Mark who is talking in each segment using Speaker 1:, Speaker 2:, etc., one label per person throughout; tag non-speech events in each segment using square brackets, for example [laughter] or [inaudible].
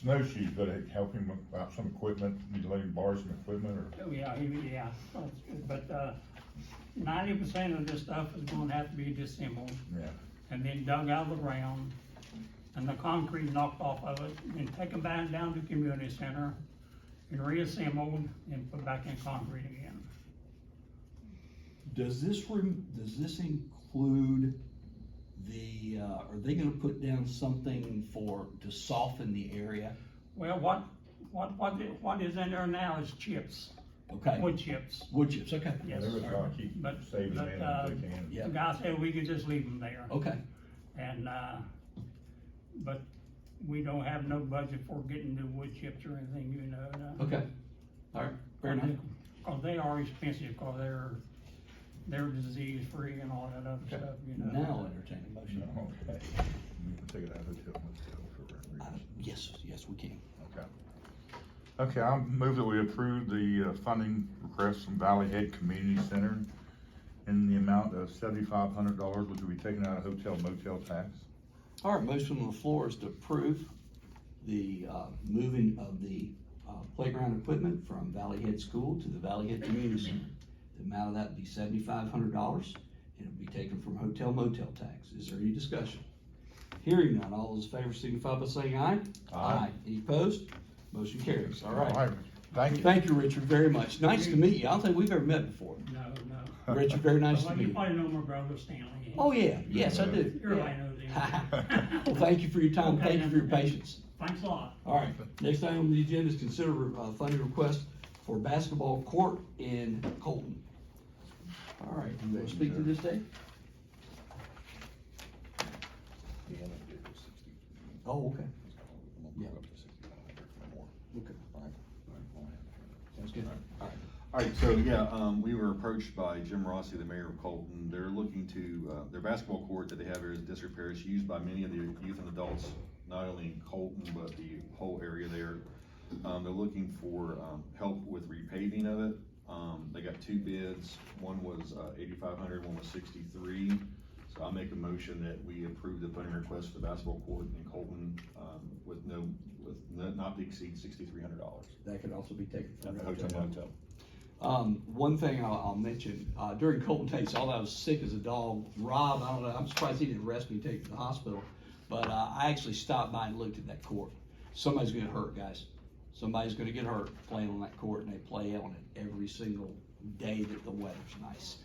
Speaker 1: snowshoes, but it help him with about some equipment, he's letting borrow some equipment or?
Speaker 2: Oh, yeah, he- yeah, but, uh, ninety percent of this stuff is gonna have to be disassembled
Speaker 1: Yeah,
Speaker 2: and then dug out of the ground and the concrete knocked off of it and taken back down to community center and reassembled and put back in concrete again.
Speaker 3: Does this room, does this include the, uh, are they gonna put down something for, to soften the area?
Speaker 2: Well, what, what, what, i- what is in there now is chips,
Speaker 3: Okay,
Speaker 2: wood chips.
Speaker 3: wood chips, okay,
Speaker 2: Yes,
Speaker 1: they're
Speaker 2: sir.
Speaker 1: trying to keep
Speaker 2: But-
Speaker 1: saving
Speaker 2: but,
Speaker 1: man
Speaker 2: uh,
Speaker 1: as they can.
Speaker 3: Yeah.
Speaker 2: The guy said we could just leave them there.
Speaker 3: okay,
Speaker 2: And, uh, but we don't have no budget for getting new wood chips or anything, you know, uh, no.
Speaker 3: okay, alright, fair enough,
Speaker 2: Cause they are expensive, cause they're, they're disease free and all that other
Speaker 3: okay.
Speaker 2: stuff, you know.
Speaker 3: Now entertain a motion.
Speaker 1: No, okay. We can take it out of the till, let's go for
Speaker 3: Uh,
Speaker 1: recreation.
Speaker 3: Yes, yes, we can.
Speaker 1: Okay. Okay, I'll move that we approve the uh, funding request from Valley Head Community Center in the amount of seventy-five hundred dollars, which will be taken out of hotel motel tax.
Speaker 3: All right, motion on the floor is to approve the, uh, moving of the, uh, playground equipment from Valley Head School to the Valley Head Community Center. The amount of that would be seventy-five hundred dollars, and it'll be taken from hotel motel tax. Is there any discussion? Hearing none, all those in favor signify by saying aye.
Speaker 1: Aye.
Speaker 3: Any opposed? Motion carries, all right.
Speaker 1: Thank you.
Speaker 3: Thank you, Richard, very much. Nice to meet you. I don't think we've ever met before.
Speaker 2: No,
Speaker 1: [laughs]
Speaker 2: no.
Speaker 3: Richard, very nice to
Speaker 2: Well,
Speaker 3: meet
Speaker 2: You
Speaker 3: you.
Speaker 2: probably know my brother Stanley.
Speaker 3: Oh, yeah, yes, I do.
Speaker 2: Everybody knows [laughs]
Speaker 3: Yeah.
Speaker 2: him.
Speaker 3: Well, [laughs] thank you for your time, thank you for your patience.
Speaker 2: Thanks a lot.
Speaker 3: All right, next item on the agenda is consider uh, funding request for basketball court in Colton. All right, you want to speak to this, Dave? Oh, okay, Yeah. okay, sounds good. All
Speaker 4: All right, so yeah, um, we were approached by Jim Rossi, the mayor of Colton. They're looking to, uh, their basketball court that they have here is disrepair. It's used by many of the youth and adults, not only in Colton, but the whole area there. Um, they're looking for, um, help with repaving of it. Um, they got two bids. One was, uh, eighty-five hundred, one was sixty-three. So I make a motion that we approve the funding request for the basketball court in Colton, um, with no, with no- not to exceed sixty-three hundred dollars.
Speaker 3: right. That can also be taken
Speaker 4: At
Speaker 3: from
Speaker 4: the
Speaker 3: the
Speaker 4: hotel motel.
Speaker 3: Um, one thing I'll, I'll mention, uh, during Colton Tate, all I was sick as a dog, Rob, I don't know, I'm surprised he didn't arrest me, take me to the hospital. But, uh, I actually stopped by and looked at that court. Somebody's gonna hurt, guys. Somebody's gonna get hurt playing on that court and they play on it every single day that the weather's nice.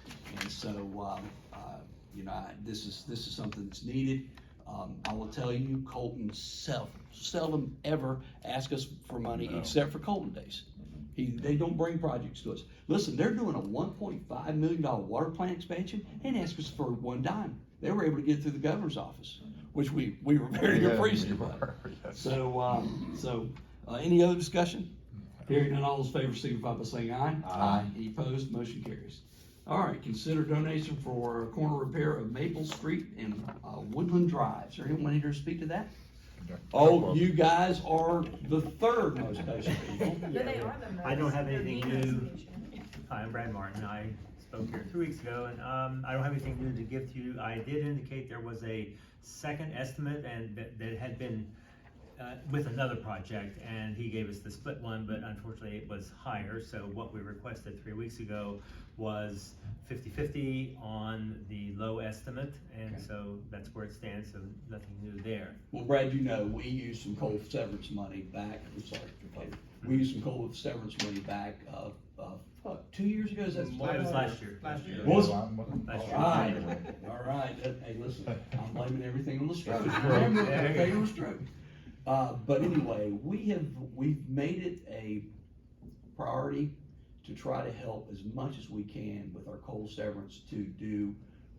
Speaker 3: And so, um, uh, you know, I- this is, this is something that's needed. Um, I will tell you, Colton sel- seldom ever ask us for money
Speaker 1: No.
Speaker 3: except for Colton days. He, they don't bring projects to us. Listen, they're doing a one point five million dollar water plant expansion and ask us for one dime. They were able to get through the governor's office, which we, we were very
Speaker 1: Yeah,
Speaker 3: appreciative
Speaker 1: you
Speaker 3: of.
Speaker 1: are, [laughs] yes.
Speaker 3: So, um, so, uh, any other discussion? Hearing none, all those in favor signify by saying aye. Aye. Any opposed, motion carries. All right, consider donation for corner repair of Maple Street and, uh, Woodland Drive. Is there anyone here to speak to that? Oh, you guys are the third most patient people.
Speaker 5: But they are the most.
Speaker 6: I don't have
Speaker 5: They're
Speaker 6: anything
Speaker 5: the
Speaker 6: new.
Speaker 5: most patient.
Speaker 6: Hi, I'm Brad Martin. I spoke here two weeks ago and, um, I don't have anything new to give to you. I did indicate there was a second estimate and that, that had been, uh, with another project and he gave us the split one, but unfortunately it was higher. So what we requested three weeks ago was 50-50 on the low estimate. And
Speaker 3: Okay.
Speaker 6: so that's where it stands, so nothing new there.
Speaker 3: Well, Brad, you know, we used some coal severance money back, I'm sorry, Dr. Pope. we used some coal severance money back, uh, uh, what, two years ago, is that?
Speaker 6: That was last year. Last year.
Speaker 3: Was-
Speaker 6: Last year.
Speaker 3: All right, all right, That- hey, listen, I'm blaming everything on the stroke.
Speaker 1: Stroke.
Speaker 3: Remember,
Speaker 6: Yeah.
Speaker 3: I'm blaming the stroke. Uh, but anyway, we have, we've made it a priority to try to help as much as we can with our coal severance to do,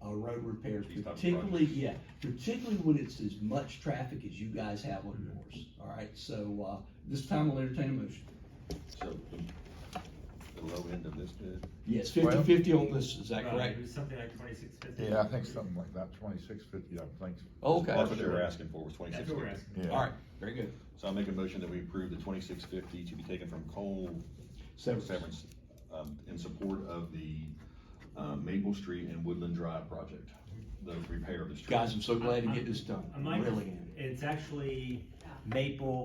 Speaker 3: uh, road repairs,
Speaker 4: These type of
Speaker 3: particularly, yeah, particularly when it's as much traffic as you guys have on
Speaker 4: Mm-hmm.
Speaker 3: yours, all right? So, uh, this time I'll entertain a motion.
Speaker 4: So the low end of this bid?
Speaker 3: Yes,
Speaker 1: Well-
Speaker 3: fifty-fifty on this, is
Speaker 4: uh,
Speaker 3: that
Speaker 6: Right,
Speaker 3: correct?
Speaker 6: Uh, It was something like twenty-six fifty.
Speaker 1: Yeah, I think something like that, twenty-six fifty, I think.
Speaker 3: Okay,
Speaker 4: That's what they were asking for, was twenty-six
Speaker 6: That's what we're
Speaker 4: fifty.
Speaker 6: asking.
Speaker 1: Yeah.
Speaker 3: all right, very good.
Speaker 4: So I make a motion that we approve the twenty-six fifty to be taken from coal severance, um, in support of the, uh, Maple Street and Woodland Drive project, the repair of the street.
Speaker 3: Guys, I'm so glad to get this done,
Speaker 6: I might-
Speaker 3: really am.
Speaker 6: It's actually maple